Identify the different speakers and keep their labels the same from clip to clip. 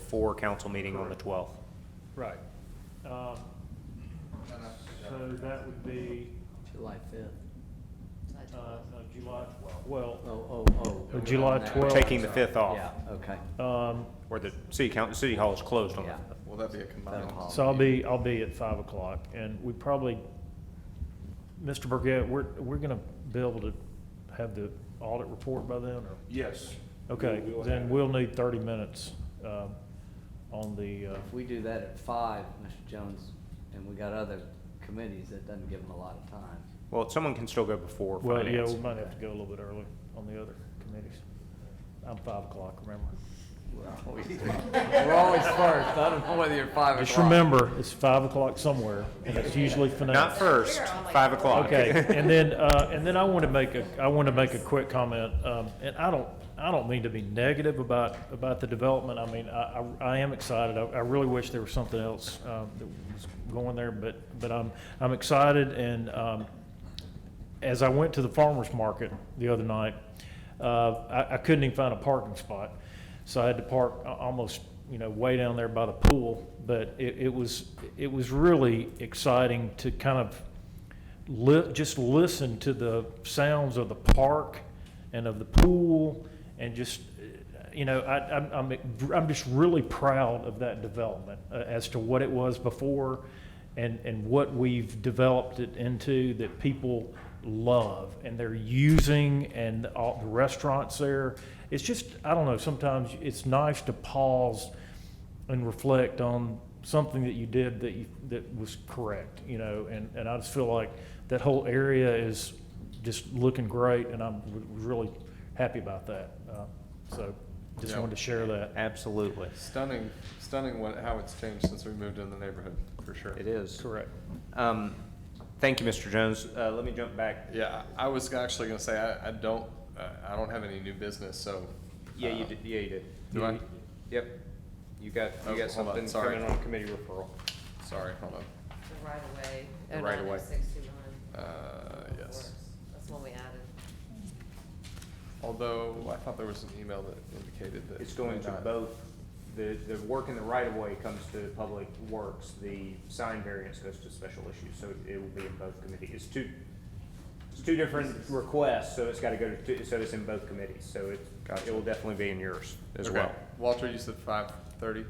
Speaker 1: before council meeting on the 12th.
Speaker 2: Right. Um, So that would be,
Speaker 3: July fifth.
Speaker 2: uh, no, July,
Speaker 3: Oh,
Speaker 2: well,
Speaker 3: oh, oh.
Speaker 2: Uh, July
Speaker 3: Now.
Speaker 2: 12th.
Speaker 1: Taking the 5th
Speaker 3: Yeah,
Speaker 1: off,
Speaker 3: okay,
Speaker 2: um,
Speaker 1: or the city council, city hall is closed on the
Speaker 3: yeah.
Speaker 1: 5th.
Speaker 4: Will that be a combined?
Speaker 3: That'll help.
Speaker 2: so I'll be, I'll be at five o'clock, and we probably, Mr. Burgett, we're, we're gonna be able to have the audit report by then, or?
Speaker 5: Yes.
Speaker 2: Okay,
Speaker 5: We will have
Speaker 2: then
Speaker 5: it.
Speaker 2: we'll need thirty minutes, um, on the, uh,
Speaker 3: If we do that at five, Mr. Jones, and we got other committees, that doesn't give them a lot of time.
Speaker 1: Well, someone can still go before
Speaker 2: well, yeah,
Speaker 1: finance.
Speaker 2: we might have to go a little bit early on the other committees. I'm five o'clock, remember?
Speaker 3: We're always first, I don't know whether you're five o'clock.
Speaker 2: Just remember, it's five o'clock somewhere, and it's usually finance.
Speaker 1: Not first,
Speaker 6: We are on like
Speaker 1: 5 o'clock.
Speaker 2: Okay, and then, uh, and then I want to make a, I want to make a quick comment, um, and I don't, I don't mean to be negative about, about the development, I mean, I, I, I am excited, I, I really wish there was something else, um, that was going there, but, but I'm, I'm excited, and, um, as I went to the farmer's market the other night, uh, I, I couldn't even find a parking spot. So I had to park a- almost, you know, way down there by the pool. But it, it was, it was really exciting to kind of li- just listen to the sounds of the park and of the pool and just, uh, you know, I, I'm, I'm, I'm just really proud of that development uh, as to what it was before and, and what we've developed it into that people love and they're using and all the restaurants there. It's just, I don't know, sometimes it's nice to pause and reflect on something that you did that you, that was correct, you know, and, and I just feel like that whole area is just looking great and I'm w- really happy about that. Uh, So just
Speaker 4: Yeah.
Speaker 2: wanted to share that.
Speaker 1: Absolutely.
Speaker 4: Stunning, stunning what, how it's changed since we moved in the neighborhood, for sure.
Speaker 1: It is.
Speaker 2: Correct.
Speaker 1: Um, Thank you, Mr. Jones. Uh, Let me jump back.
Speaker 4: Yeah, I I was actually gonna say, I, I don't, uh, I don't have any new business, so.
Speaker 1: Yeah, you
Speaker 4: uh,
Speaker 1: did, yeah, you did.
Speaker 4: Do I?
Speaker 1: Yep. You got,
Speaker 4: Oh,
Speaker 1: you got
Speaker 4: hold on,
Speaker 1: something
Speaker 4: sorry.
Speaker 1: coming on committee referral.
Speaker 4: Sorry, hold on.
Speaker 6: The right of way.
Speaker 4: The right of way.
Speaker 6: 09,
Speaker 4: Uh,
Speaker 6: of
Speaker 4: yes.
Speaker 6: course. That's one we added.
Speaker 4: Although, I thought there was an email that indicated that.
Speaker 1: It's going
Speaker 4: may
Speaker 1: to
Speaker 4: not-
Speaker 1: both, the, the work in the right of way comes to public works, the sign variance goes to special issues, so it will be in both committees. It's two, it's two different requests, so it's gotta go to, two- so it's in both committees, so it, it
Speaker 4: Gotcha.
Speaker 1: will definitely be in yours as
Speaker 4: Okay.
Speaker 1: well.
Speaker 4: Walter, you said five thirty?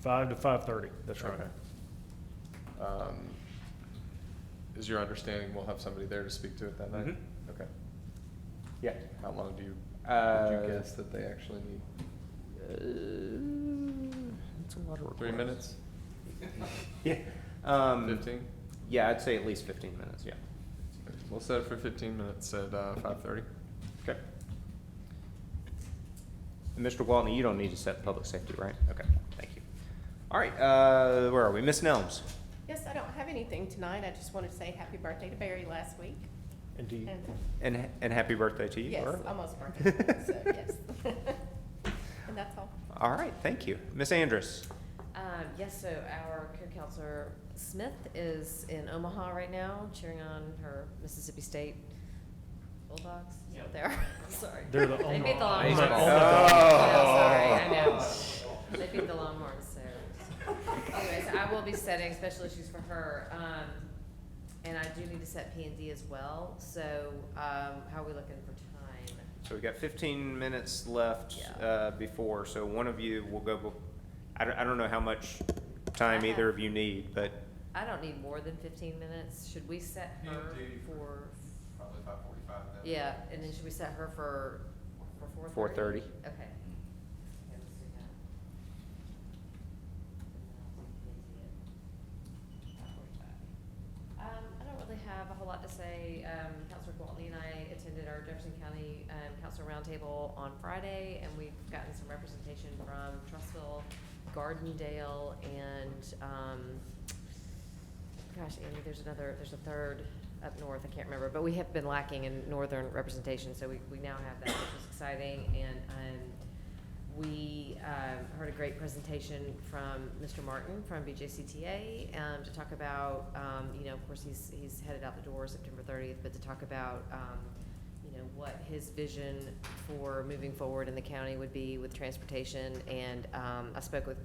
Speaker 2: Five to five thirty, that's right.
Speaker 4: Um, Is your understanding we'll have somebody there to speak to it that night?
Speaker 1: Mhm.
Speaker 4: Okay.
Speaker 1: Yeah.
Speaker 4: How long do you,
Speaker 1: Uh,
Speaker 4: would you guess that they actually need?
Speaker 1: It's a lot of
Speaker 4: Three minutes?
Speaker 1: Yeah. Um,
Speaker 4: Fifteen?
Speaker 1: Yeah, I'd say at least fifteen minutes, yeah.
Speaker 4: We'll set it for fifteen minutes at uh, five thirty.
Speaker 1: Okay. And Mr. Waltney, you don't need to set public safety, right? Okay, thank you. All right, uh, where are we? Miss Nelms?
Speaker 7: Yes, I don't have anything tonight. I just wanted to say happy birthday to Barry last week.
Speaker 2: And do you,
Speaker 7: And
Speaker 1: And, and happy birthday to you.
Speaker 7: yes,
Speaker 1: early.
Speaker 7: almost birthday, so yes. And that's all.
Speaker 1: All right, thank you. Miss Andrus?
Speaker 6: Um, yes, so our co-counselor Smith is in Omaha right now cheering on her Mississippi State Bulldogs. Yeah. They're, sorry.
Speaker 2: They're the
Speaker 6: They beat the
Speaker 2: Omaha-
Speaker 1: Oh.
Speaker 6: Longhorns.
Speaker 2: Baseball.
Speaker 6: Yeah, sorry, I know. They beat the Longhorns, so. Anyways, I will be setting special issues for her, um, and I do need to set P and D as well, so, um, how are we looking for time?
Speaker 1: So we got fifteen minutes left,
Speaker 6: Yeah.
Speaker 1: uh, before, so one of you will go, bef- I don't, I don't know how much time
Speaker 6: I
Speaker 1: either
Speaker 6: have-
Speaker 1: of you need, but
Speaker 6: I don't need more than fifteen minutes, should we set her for,
Speaker 4: Probably five forty-five
Speaker 6: yeah, and then should we set her for, for four thirty?
Speaker 1: 4:30.
Speaker 6: Okay. Okay, let's do that. Um, I don't really have a whole lot to say. Um, Counselor Gwaltney and I attended our Jefferson County, um, Council Roundtable on Friday, and we've gotten some representation from Trustville, Gardendale, and, um, gosh, Amy, there's another, there's a third up north, I can't remember, but we have been lacking in northern representation, so we, we now have that, which is exciting, and, um, we, um, heard a great presentation from Mr. Martin from BJCTA, um, to talk about, um, you know, of course, he's, he's headed out the door September thirtieth, but to talk about, um, you know, what his vision for moving forward in the county would be with transportation, and, um, I spoke with